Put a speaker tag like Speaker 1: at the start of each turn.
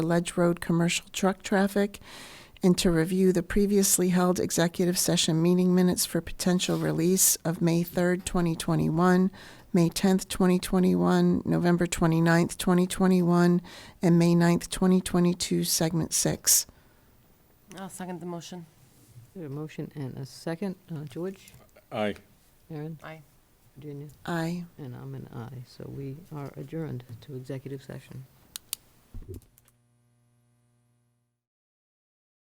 Speaker 1: Ledge Road commercial truck traffic, and to review the previously held executive session meeting minutes for potential release of May 3rd, 2021, May 10th, 2021, November 29th, 2021, and May 9th, 2022, Segment 6.
Speaker 2: I'll second the motion.
Speaker 3: There A motion and a second. Uh, George,
Speaker 4: Aye.
Speaker 3: Aaron,
Speaker 2: Aye.
Speaker 3: Virginia,
Speaker 1: Aye.
Speaker 3: and I'm an aye. So we are adjourned to executive session.